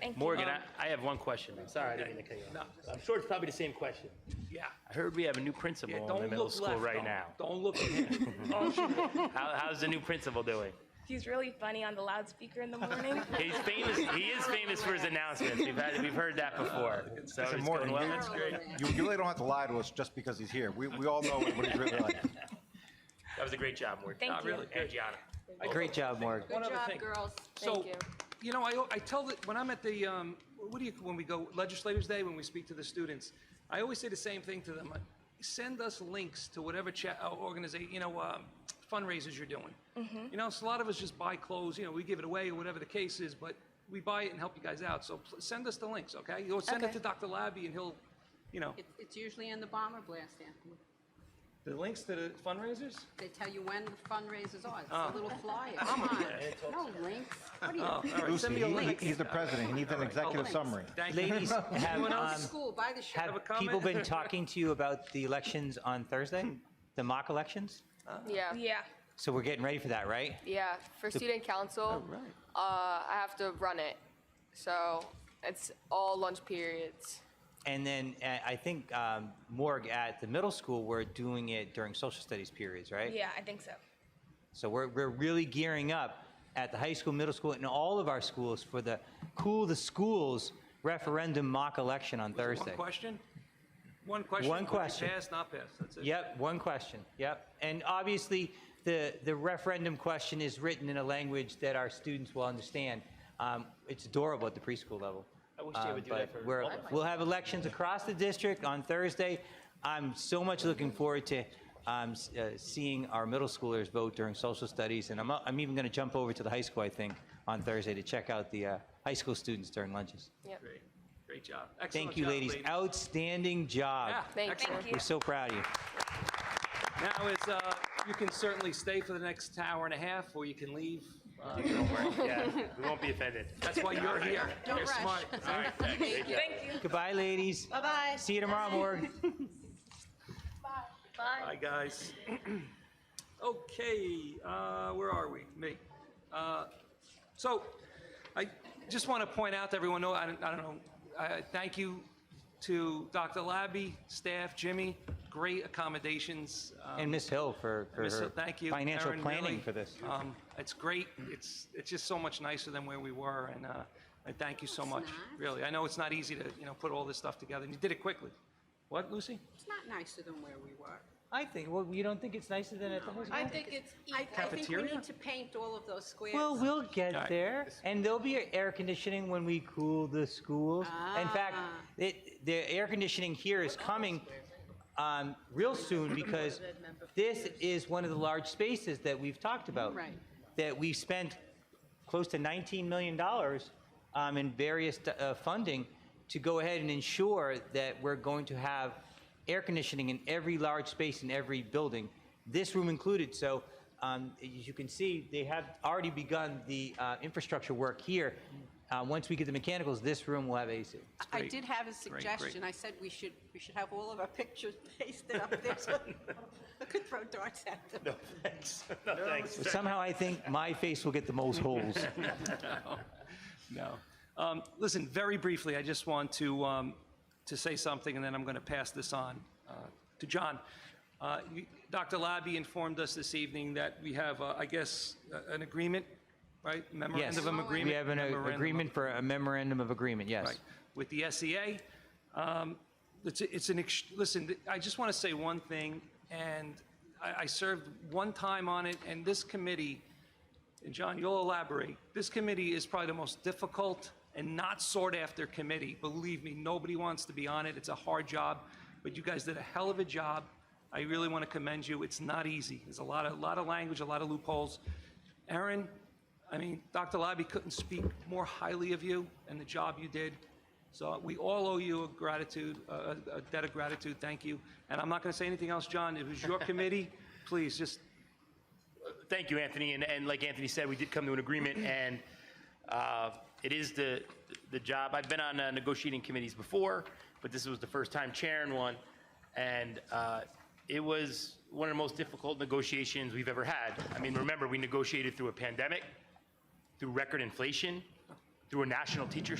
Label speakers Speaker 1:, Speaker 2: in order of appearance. Speaker 1: Thank you. Um,
Speaker 2: Morgan, I, I have one question. Um, Sorry, I didn't mean to cut you off. I'm sure it's probably the same question.
Speaker 3: Yeah.
Speaker 2: I heard we have a new principal
Speaker 3: Yeah,
Speaker 2: in the
Speaker 3: don't
Speaker 2: middle
Speaker 3: look
Speaker 2: school
Speaker 3: left,
Speaker 2: right
Speaker 3: though.
Speaker 2: now.
Speaker 3: Don't look at him. Oh, shoot.
Speaker 2: How, how's the new principal doing?
Speaker 1: He's really funny on the loudspeaker in the morning.
Speaker 2: He's famous. He is famous for his announcements. We've had, we've heard that before. So
Speaker 4: Listen,
Speaker 2: it's
Speaker 4: Morgan,
Speaker 2: going well.
Speaker 4: you- You, you really don't have to lie to us just because he's here. We, we all know what he's really like.
Speaker 2: That was a great job, Morgan.
Speaker 1: Thank
Speaker 3: Not
Speaker 1: you.
Speaker 3: really.
Speaker 2: And Gianna.
Speaker 5: Great job, Mark.
Speaker 3: One
Speaker 6: Good
Speaker 3: other
Speaker 6: job,
Speaker 3: thing.
Speaker 6: girls.
Speaker 3: So,
Speaker 6: Thank you.
Speaker 3: you know, I, I tell that, when I'm at the, um, what do you, when we go Legislators Day, when we speak to the students, I always say the same thing to them. Send us links to whatever cha, uh, organization, you know, um, fundraisers you're doing. You know, so a lot of us just buy clothes, you know, we give it away or whatever the case is, but we buy it and help you guys out. So pl- send us the links, okay? Go send it
Speaker 1: Okay.
Speaker 3: to Dr. Labby and he'll, you know,
Speaker 6: It- It's usually in the bomber blast, Anthony.
Speaker 3: the links to the fundraisers?
Speaker 6: They tell you when the fundraisers are. It's a
Speaker 3: Ah.
Speaker 6: little flyer. Come on. No links. What are you?
Speaker 3: Oh, All right, send me a
Speaker 4: He-
Speaker 3: link.
Speaker 4: He's the president. He needs an executive summary.
Speaker 3: Thank you.
Speaker 5: Ladies, have,
Speaker 3: Anyone
Speaker 6: Go to
Speaker 3: else?
Speaker 5: um,
Speaker 6: school, buy the
Speaker 3: Have a
Speaker 6: shirt.
Speaker 5: have
Speaker 3: comment?
Speaker 5: people been talking to you about the elections on Thursday? The mock elections?
Speaker 7: Yeah,
Speaker 1: Yeah.
Speaker 5: So we're getting ready for that, right?
Speaker 7: yeah. For student council, uh,
Speaker 3: Right.
Speaker 7: I have to run it. So it's all lunch periods.
Speaker 5: And then uh, I think um, Morg at the middle school, we're doing it during social studies periods, right?
Speaker 1: Yeah, I think so.
Speaker 5: So we're, we're really gearing up at the high school, middle school, and all of our schools for the Cool the Schools referendum mock election on Thursday.
Speaker 3: One question? One question?
Speaker 5: One
Speaker 3: Would you
Speaker 5: question.
Speaker 3: Pass, not pass, that's it.
Speaker 5: Yep, one question. Yep. And obviously, the, the referendum question is written in a language that our students will understand. Um, it's adorable at the preschool level. Um,
Speaker 2: I wish they would do that
Speaker 5: but
Speaker 2: for
Speaker 5: we're-
Speaker 2: all of us.
Speaker 5: We'll have elections across the district on Thursday. I'm so much looking forward to um, s- uh, seeing our middle schoolers vote during social studies. And I'm, I'm even going to jump over to the high school, I think, on Thursday to check out the uh, high school students during lunches.
Speaker 7: Yep.
Speaker 3: Great, great job. Excellent
Speaker 5: Thank you,
Speaker 3: job,
Speaker 5: ladies. Outstanding job.
Speaker 3: Yeah,
Speaker 7: Thank you.
Speaker 3: excellent.
Speaker 1: Thank
Speaker 5: We're so proud of you.
Speaker 3: Now is, uh, you can certainly stay for the next hour and a half, or you can leave. Uh,
Speaker 2: Yeah, we won't be offended.
Speaker 3: That's why you're here.
Speaker 6: Don't
Speaker 3: You're
Speaker 6: rush.
Speaker 3: smart.
Speaker 2: All right, thanks. Great job.
Speaker 1: Thank you.
Speaker 5: Goodbye, ladies.
Speaker 6: Bye-bye.
Speaker 5: See you tomorrow, Morgan.
Speaker 3: Hi, guys. Okay, uh, where are we? Me. Uh, So I just want to point out to everyone, no, I don't I don't know, I- I thank you to Dr. Labby, staff, Jimmy, great accommodations. Um,
Speaker 5: And Miss Hill for, for
Speaker 3: Miss
Speaker 5: her
Speaker 3: Hill, thank you.
Speaker 5: financial
Speaker 3: Erin,
Speaker 5: planning
Speaker 3: really,
Speaker 5: for this.
Speaker 3: Um, it's great. It's it's just so much nicer than where we were, and uh, I thank you so
Speaker 6: it's
Speaker 3: much.
Speaker 6: not.
Speaker 3: Really, I know it's not easy to you know put all this stuff together, and you did it quickly. What, Lucy?
Speaker 6: It's not nicer than where we were.
Speaker 5: I think, well, you don't think it's nicer than at the high school?
Speaker 6: I think it's, I I think we
Speaker 3: Cafeteria?
Speaker 6: need to paint all of those squares.
Speaker 5: Well, we'll get
Speaker 3: All right.
Speaker 5: there, and there'll be air conditioning when we cool the schools. In
Speaker 6: Ah.
Speaker 5: fact, it, the air conditioning here is coming um, real soon because this is one of the large spaces that we've talked about.
Speaker 6: Right.
Speaker 5: That we spent close to 19 million dollars um, in various uh, funding to go ahead and ensure that we're going to have air conditioning in every large space in every building, this room included. So. Um, as you can see, they have already begun the uh, infrastructure work here. Uh, once we get the mechanicals, this room will have AC.
Speaker 6: I
Speaker 3: great.
Speaker 6: did have a
Speaker 3: great.
Speaker 6: suggestion. I said we should, we should have all of our pictures pasted up there so I could throw darts at them.
Speaker 2: Thanks. No, thanks.
Speaker 5: But somehow, I think my face will get the most holes.
Speaker 3: No. Um, Listen, very briefly, I just want to, um, to say something, and then I'm going to pass this on uh, to John. Uh, you- Dr. Labby informed us this evening that we have, uh, I guess, uh, an agreement, right?
Speaker 5: yes,
Speaker 3: Memorandum of agreement?
Speaker 5: we have an uh,
Speaker 3: Memorandum of-
Speaker 5: agreement for a memorandum of agreement. Yes.
Speaker 3: Right, with the SEA. Um, It's, it's an, ex- listen, th- I just want to say one thing, and I, I served one time on it, and this committee, and John, you'll elaborate, this committee is probably the most difficult and not sought-after committee. Believe me, nobody wants to be on it. It's a hard job, but you guys did a hell of a job. I really want to commend you. It's not easy. There's a lot of, lot of language, a lot of loopholes. Aaron, I mean, Dr. Labby couldn't speak more highly of you and the job you did. So we all owe you a gratitude, a a debt of gratitude. Thank you. And I'm not going to say anything else, John. It was your committee. Please, just,
Speaker 2: Thank you, Anthony. And, and like Anthony said, we did come to an agreement, and uh, it is the, the job. I've been on uh, negotiating committees before, but this was the first time chairing one. And uh, it was one of the most difficult negotiations we've ever had. I mean, remember, we negotiated through a pandemic, through record inflation, through a national teacher